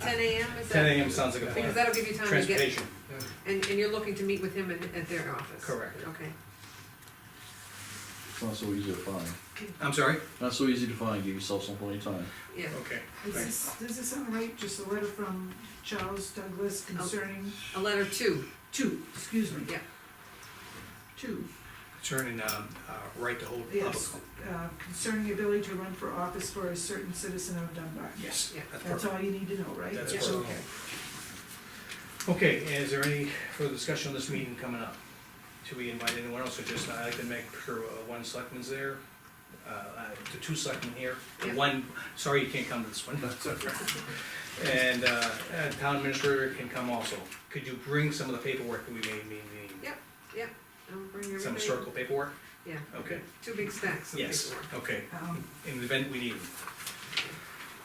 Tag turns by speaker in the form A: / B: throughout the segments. A: ten AM, is that?
B: Ten AM sounds like a
A: Because
B: plan.
A: that'll give you time to get,
B: Transportation,
A: and, and you're looking to meet with him in, at their office?
B: Correct.
A: Okay.
C: It's not so easy to find.
B: I'm sorry?
C: Not so easy to find, give yourself some plenty of time.
A: Yeah,
B: Okay.
D: Is
B: Right.
D: this, does this sound right, just a letter from Charles Douglas concerning,
A: a letter two,
D: two, excuse me?
A: Yeah.
D: Two,
B: Concerning, um, uh, right to hold public.
D: yes, uh, concerning ability to run for office for a certain citizen of Dunbar.
B: Yes,
A: Yeah.
B: that's
D: That's
B: perfect.
D: all you need to know, right?
B: That's
A: Yes.
B: perfect. Okay, is there any further discussion on this meeting coming up? Should we invite anyone else, or just, I like to make sure uh, one selectman's there, uh, uh, the two selectmen here, the
A: Yeah.
B: one, sorry you can't come to this one. And, uh, uh, town administrator can come also. Could you bring some of the paperwork that we may need?
A: I'll bring everything.
B: Some historical paperwork?
A: Yeah.
B: Okay,
A: Two big stacks of
B: yes,
A: paperwork.
B: okay,
D: Um,
B: in the event we need them.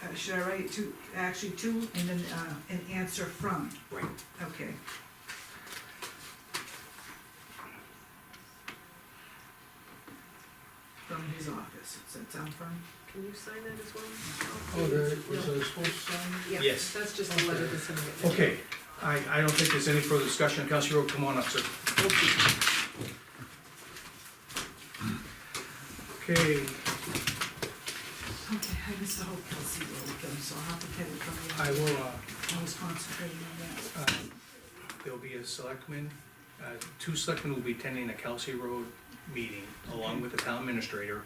D: uh, should I write two, actually two, and then, uh, an answer from,
B: Right.
D: okay. From his office, does that sound fun?
A: Can you sign that as well?
E: Oh, there,
A: No.
E: was I supposed to sign?
A: Yeah,
B: Yes.
A: that's just a letter that's in it.
B: Okay, I, I don't think there's any further discussion, Counselor Rowe, come on up, sir. Okay,
D: Okay, I missed the whole Kelsey Road thing, so I'll have to get it from
B: I
D: you.
B: will, uh,
D: I was concentrating on that.
B: uh, there'll be a selectman, uh, two selectmen will be attending a Kelsey Road meeting along with the town administrator.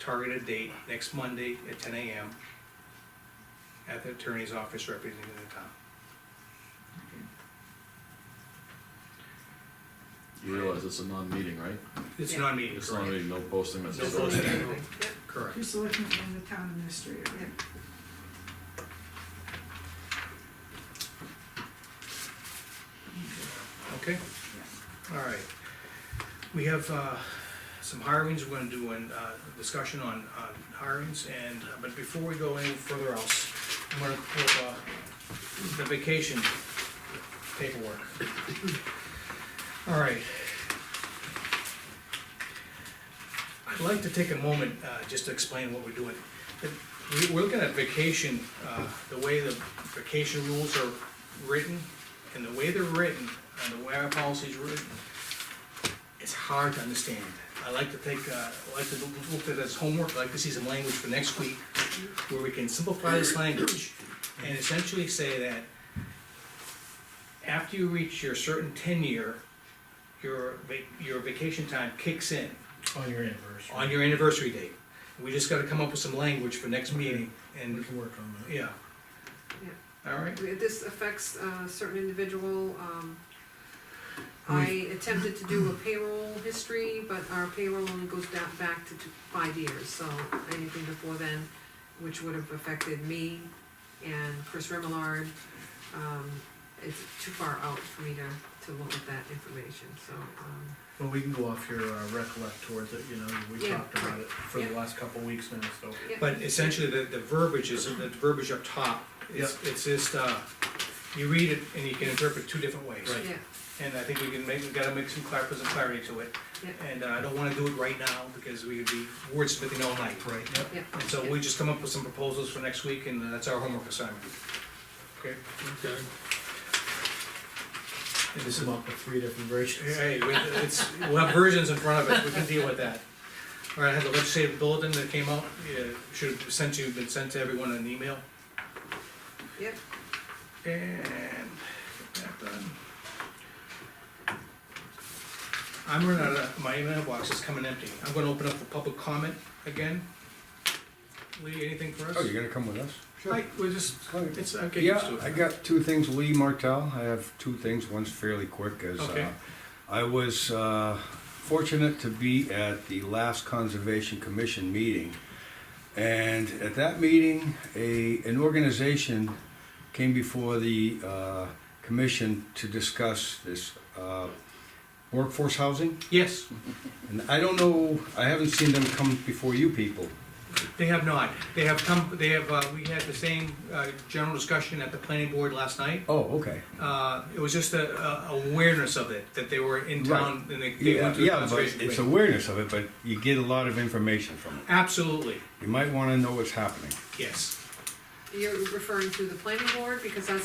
B: Targeted date, next Monday at ten AM at the attorney's office representing the town.
C: You realize it's a non-meeting, right?
B: It's
A: Yeah.
B: not a meeting,
C: It's not a
B: correct?
C: meeting, no posting, that's.
B: No
A: Just a letter, yeah.
B: Correct.
D: Two selectmen and the town administrator,
A: Yeah.
B: Okay, all right. We have uh, some hirings, we're gonna do a discussion on on hirings, and, uh, but before we go any further else, I'm gonna pull up, uh, the vacation paperwork. All right. I'd like to take a moment uh, just to explain what we're doing. The- we- We're looking at vacation, uh, the way the vacation rules are written, and the way they're written, and the way our policy's written, it's hard to understand. I like to take, uh, I like to look- look at it as homework, I like to see some language for next week, where we can simplify this language, and essentially say that after you reach your certain tenure, your, va- your vacation time kicks in
E: On your anniversary.
B: on your anniversary date. We just gotta come up with some language for next meeting,
E: We
B: and,
E: can work on that.
B: yeah. All right,
A: We- This affects a certain individual. um, I attempted to do a payroll history, but our payroll only goes down back to t- five years, so anything before then, which would have affected me and Chris Remillard, um, it's too far out for me to, to look at that information, so, um,
E: Well, we can go off your uh, recollect towards it, you know, we
A: Yeah.
E: talked about it for the
A: Yeah.
E: last couple of weeks now, so.
A: yeah.
B: but essentially, the, the verbiage is, the verbiage up top, it's, it's just, uh, you read it and you can interpret two different ways.
E: Right.
A: Yeah,
B: And I think we can make, we gotta make some clar, put some clarity to it,
A: yeah,
B: and uh, I don't wanna do it right now, because we could be wordsmithing all night.
E: Right, yep.
A: yeah.
B: And so we just come up with some proposals for next week, and uh, that's our homework assignment. Okay?
E: Okay.
B: And
E: This
B: this is,
E: is up to three different versions.
B: hey, we- it's, we'll have versions in front of us, we can deal with that. All right, I had the legislative bulletin that came out, uh, should have sent you, been sent to everyone in an email.
A: Yep.
B: And that done. I'm running out of, my mailbox is coming empty. I'm gonna open up for public comment again. Lee, anything for us?
F: Oh, you're gonna come with us?
B: Hi, we're just,
F: Oh,
B: it's, okay.
F: Yeah, I got two things, Lee Martell, I have two things, one's fairly quick, as,
B: Okay.
F: uh, I was, uh, fortunate to be at the last Conservation Commission meeting. And at that meeting, a, an organization came before the, uh, commission to discuss this, uh, workforce housing.
B: Yes,
F: And I don't know, I haven't seen them come before you people.
B: they have not. They have come, they have, uh, we had the same, uh, general discussion at the planning board last night.
F: Oh, okay.
B: Uh, it was just a, a awareness of it, that they were in
F: Right.
B: town and they, they
F: Yeah,
B: went to the
F: yeah, but
B: conservation
F: it's
B: committee.
F: awareness of it, but you get a lot of information from it.
B: Absolutely,
F: You might wanna know what's happening.
B: yes.
A: you're referring to the planning board, because that's